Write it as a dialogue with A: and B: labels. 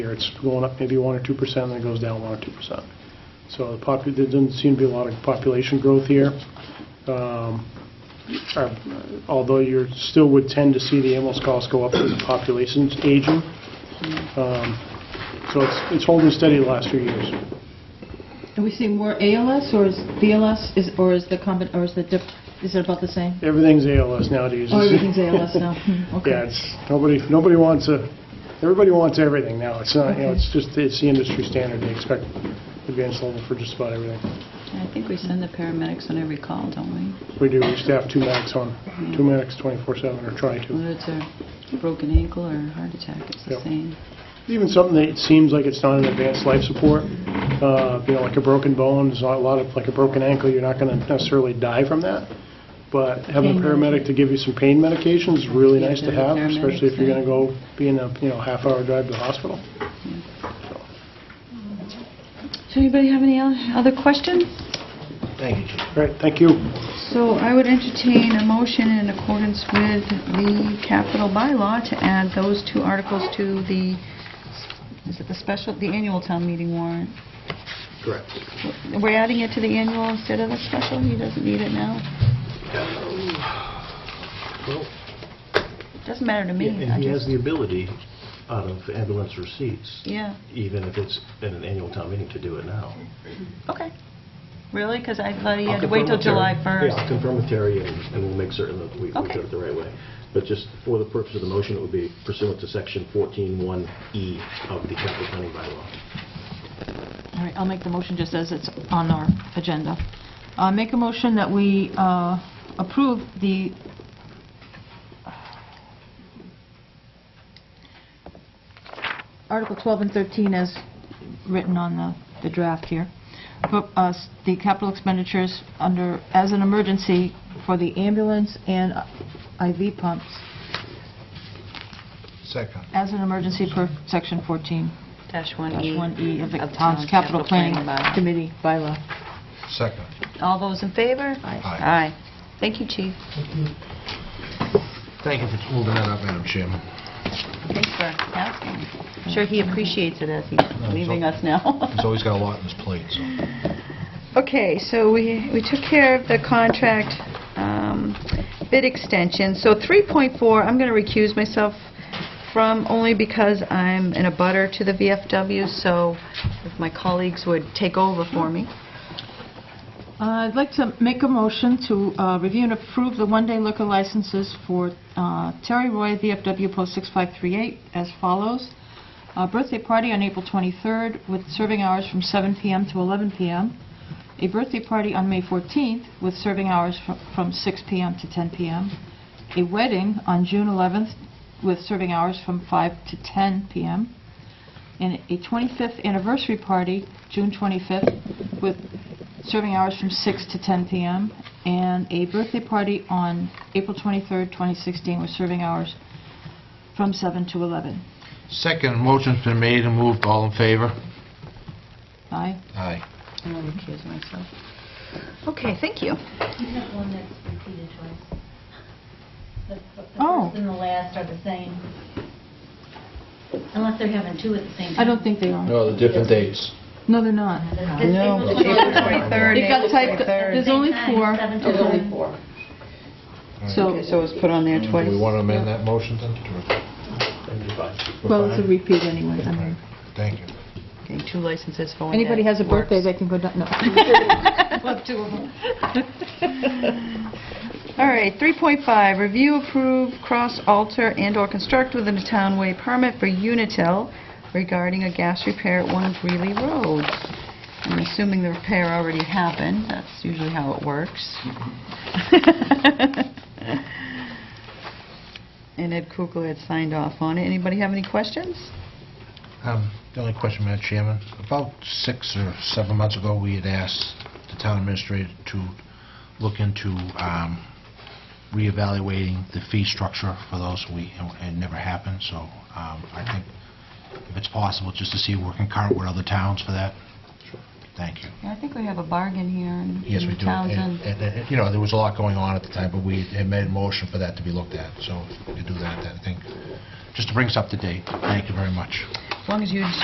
A: year. It's going up maybe 1% or 2%, and then it goes down 1% or 2%. So the popu- there doesn't seem to be a lot of population growth here. Um, our- Although you still would tend to see the ambulance costs go up as the population's aging. Um, So it's it's holding steady the last few years.
B: Are we seeing more ALS or is BLS, is, or is the combi, or is the, diff- is it about the same?
A: Everything's ALS nowadays.
B: Oh, everything's ALS now, Hmm, okay.
A: Yeah, it's, nobody, nobody wants a, everybody wants everything now. It's not, you know, it's just, it's the industry standard. They expect advanced level for just about everything.
C: I think we send the paramedics on every call, don't we?
A: We do, we staff two medics on, two medics 24/7 or try to.
C: Whether it's a broken ankle or a heart attack, it's the
A: Yep.
C: same.
A: Even something that seems like it's not an advanced life support, uh, you know, like a broken bone, there's not a lot of, like a broken ankle, you're not going to necessarily die from that. But having a
B: Pain
A: paramedic to give you some pain medication is really
C: Yeah,
A: nice to
C: they're the
A: have, especially if you're going
C: paramedics,
A: to go be in a, you know, half-hour drive to the hospital.
C: Does anybody have any oth- other questions?
D: Thank you, Chief.
A: All right, thank you.
C: So I would entertain a motion in accordance with the capital bylaw to add those two articles to the, is it the special, the annual town meeting warrant?
D: Correct.
C: We're adding it to the annual instead of the special? He doesn't need it now?
D: Well,
C: Doesn't matter to me. I
D: And he has
C: just-
D: the ability out of ambulance receipts,
C: Yeah,
D: even if it's at an annual town meeting, to do it now.
C: okay. Really? Because I thought he
D: I'll
C: had to wait till
D: confirm with
C: July
D: Terry.
C: 1st.
D: Yeah, I'll confirm with Terry, and and we'll make certain that we we
C: Okay.
D: do it the right way. But just for the purpose of the motion, it would be pursuant to Section 14-1E of the capital planning bylaw.
B: All right, I'll make the motion just as it's on our agenda. Uh, Make a motion that we uh, approve the, Article 12 and 13 as written on the the draft here, but uh, the capital expenditures under, as an emergency for the ambulance and IV pumps,
E: Second.
B: as an emergency per Section 14,
C: Dash one E.
B: 1E of the town's capital planning committee bylaw.
E: Second.
C: All those in favor?
E: Aye.
C: Aye. Thank you, Chief.
E: Thank you for holding that up, Madam Chairman.
C: Thanks for asking. I'm sure he appreciates it as he's
E: it's
C: leaving
E: all-
C: us now.
E: He's always got a lot on his plate, so.
C: Okay, so we, we took care of the contract um, bid extension. So 3.4, I'm going to recuse myself from only because I'm in a butter to the VFW, so if my colleagues would take over for me.
B: Uh, I'd like to make a motion to uh, review and approve the one-day liquor licenses for uh, Terry Roy, VFW Post 6538, as follows. A birthday party on April 23rd with serving hours from 7 p.m. to 11 p.m. A birthday party on May 14th with serving hours fr- from 6 p.m. to 10 p.m. A wedding on June 11th with serving hours from 5 to 10 p.m and a 25th anniversary party, June 25th, with serving hours from 6 to 10 p.m., and a birthday party on April 23rd, 2016, with serving hours from 7 to 11.
E: Second, motion's been made and moved, all in favor?
B: Aye?
E: Aye.
C: I'm going to recuse myself. Okay, thank you.
F: You have one that's repeated twice. The the
B: Oh.
F: first and the last are the same. Unless they're having two at the same
B: I
F: time.
B: don't think they are.
G: No, the different days.
B: No, they're not.
F: This- this was the
C: April
F: last one.
C: 23rd.
B: It got typed,
F: Same
B: there's only
F: time,
B: four,
F: seven to
G: There's only
F: eleven.
G: four.
B: so,
C: So it was put on there
E: Do
C: twice.
E: we want to amend that motion then? to-
D: That'd be fine.
B: well, it's a repeat anyway. I mean,
E: Thank you.
C: Okay, two licenses for one day.
B: Anybody has a
C: Works.
B: birthday, they can go down, no.
C: All right, 3.5, review, approve, cross, alter, and/or construct within a townway permit for Unitil regarding a gas repair at 1 Greeley Road. I'm assuming the repair already happened, that's usually how it works. And Ed Kukla had signed off on it. Anybody have any questions?
E: Um, The only question, Madam Chairman, about six or seven months ago, we had asked the town administrator to look into um, reevaluating the fee structure for those, we, it never happened, so um, I think if it's possible, just to see if we're concurrent with other towns for that. Thank you.
C: I think we have a bargain here
E: Yes, we do. And- And, and, you know, there was a lot going on at the time, but we had made a motion for that to be looked at, so to do that, I think, just to bring us up to date. Thank you very much.
C: As long as you